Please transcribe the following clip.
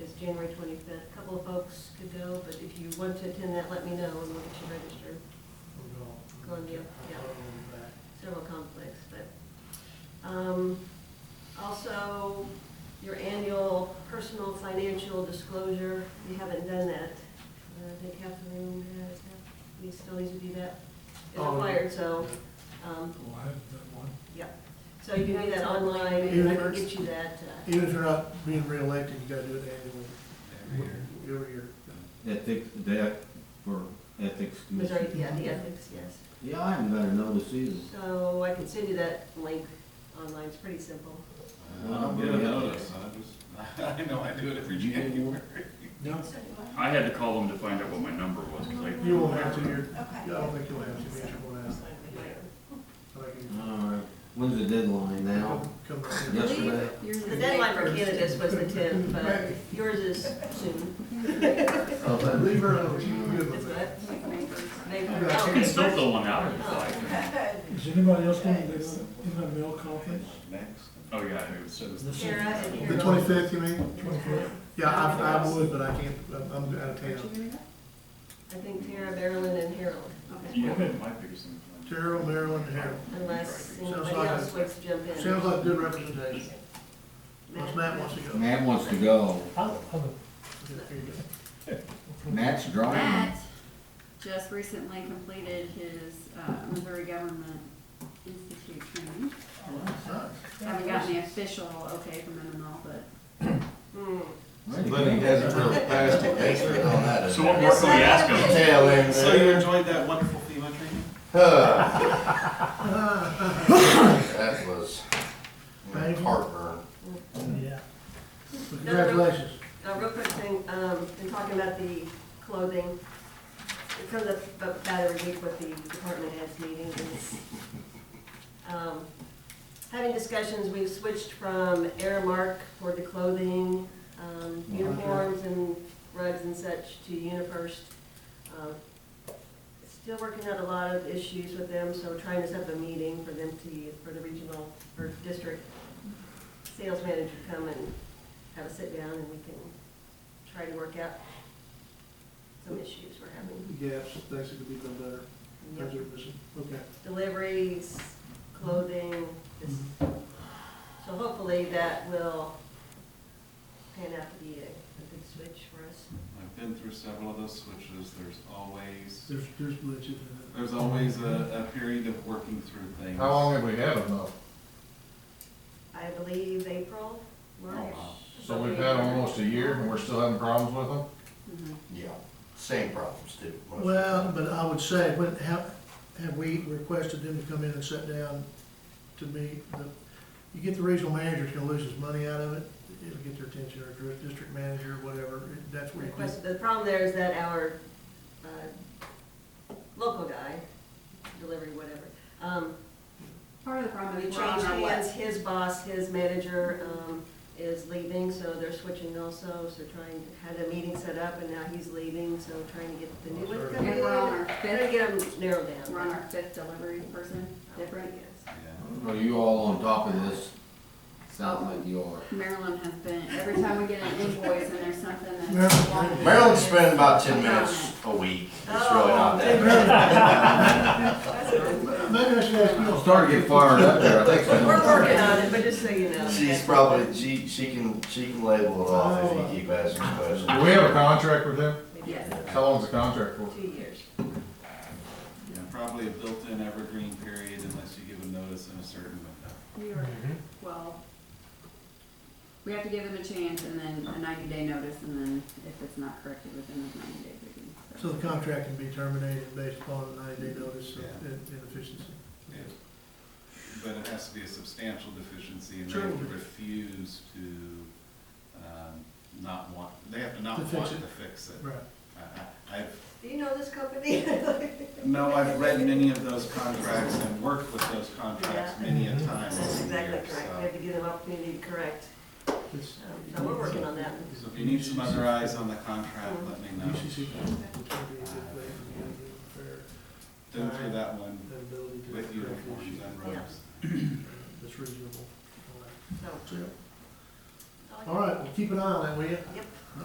January twenty-fifth. A Couple of folks could go, but if you want to attend that, let me know and we'll get you registered. Columbia, yeah. Several conflicts, but, um, also, your annual personal financial disclosure, we haven't done that. Uh, I think Catherine has, we still need to do that. It's Oh, yeah. required, so, um, Well, I haven't done one. yeah. So you can do that online, and I can get you that, uh, Even if you're not being reelected, you gotta do it annually, every year. Ethics, that, for ethics Missouri, commission. yeah, the ethics, yes. Yeah, I haven't got a notice either. So I can send you that link online, it's pretty simple. I don't get a notice. I just, I know I do it every You get January. No, I had to call them to find out what my number was, because I. you won't have to, you're, I Okay. don't think you'll have to, be sure one out. I think you- All right, Uh, when's the deadline now? Come right here. Yes. Yesterday. The deadline for candidates was the tenth, but yours is soon. Leave her alone, she's good Is with that? that. Maybe- Yeah. You okay. can still fill one out if you like. Is anybody else going to do in the mail conference? Next. Oh, yeah, it was, Sarah and The Harold. twenty-fifth, you mean? Twenty-fourth? Yeah, I, I would, but I can't, I'm I'm out of town. I think Tara, Marilyn, and Harold, yeah, that might be some. Terrell, Maryland, and Harold. unless Sounds anybody like else a- wants to jump in. Sounds like good representation. Unless Matt wants to go. Matt wants to go. There you go. Matt's driving. Matt just recently completed his uh, Missouri Government Institute training. Oh, Haven't gotten the official okay from him and all, but Hmm. But he hasn't really passed the paper on that. So what more can we ask them? Tell him So you that. enjoyed that wonderful FEMA training? Huh. That was heartburn. Yeah. Congratulations. Now, real quick thing, um, in talking about the clothing, it comes up about every week with the department heads meeting. and it's, um, Having discussions, we've switched from Airmark for the clothing, um, uniforms and rugs and such to UniFirst. Um, Still working out a lot of issues with them, so trying to set up a meeting for them to, for the regional or district sales manager to come and have a sit down and we can try to work out some issues we're having. Yes, things that could be done better. Things are missing. Okay. Deliveries, clothing, this, so hopefully that will pan out to be a, a good switch for us. I've been through several of those switches, there's always, There's, there's glitches in there's always a, a period of working through things. How long have we had them though? I believe April, March. wow. So we've had them almost a year and we're still having problems with them? Mm-hmm. mhm. Yeah, same problems too. it. Well, but I would say, when, have, have we requested them to come in and sit down to meet? the- You get the regional manager, it's gonna lose his money out of it, it'll get their attention, or dir- district manager, whatever, it- that's where you get. Request, the problem there is that our, uh, local guy, delivery, whatever, um, Part of the problem We is changed we're on our way. hands, his boss, his manager, um, is leaving, so they're switching also, so trying, had a meeting set up, and now he's leaving, so trying to get the new one to come in. And we're on our Better fifth, get them narrowed down. we're on our fifth delivery person, different. Yeah. Are you all on top of this? Sounds like you are. Maryland has been, every time we get an invoice and there's something that's. Maryland- Maryland's spending about ten minutes a week. It's really Oh. not that bad. Maybe I should ask you. I'm starting to get fired up there, I think so. We're working on it, but just so you know. She's probably, she, she can, she can label it off if you keep asking questions. Do we have a contract with them? Yes, How long's the contract for? Two years. Probably a built-in evergreen period unless you give a notice in a certain window. we are, well, we have to give them a chance and then a ninety day notice and then if it's not corrected within the ninety days, we can. So the contract can be terminated based upon the ninety-day notice of in- inefficiency. Yeah. But it has to be a substantial deficiency and they Sure. have to refuse to, um, not want, they have to not To fix want it. to fix it. Right. I- I- I've Do you know this company? No, I've read many of those contracts and worked with those contracts many a time That's over the exactly years, correct. uh, We have so. to give them opportunity to correct. It's- Um, So we're working on that. So if you need some other eyes on the contract, let me Mm-hmm. know. UCC would be a good way for you to get Been through that one fair ability to. with uniforms and robes. That's reasonable. So, Yeah. that's all I got. All right, well, keep an eye on that, will you? Yep.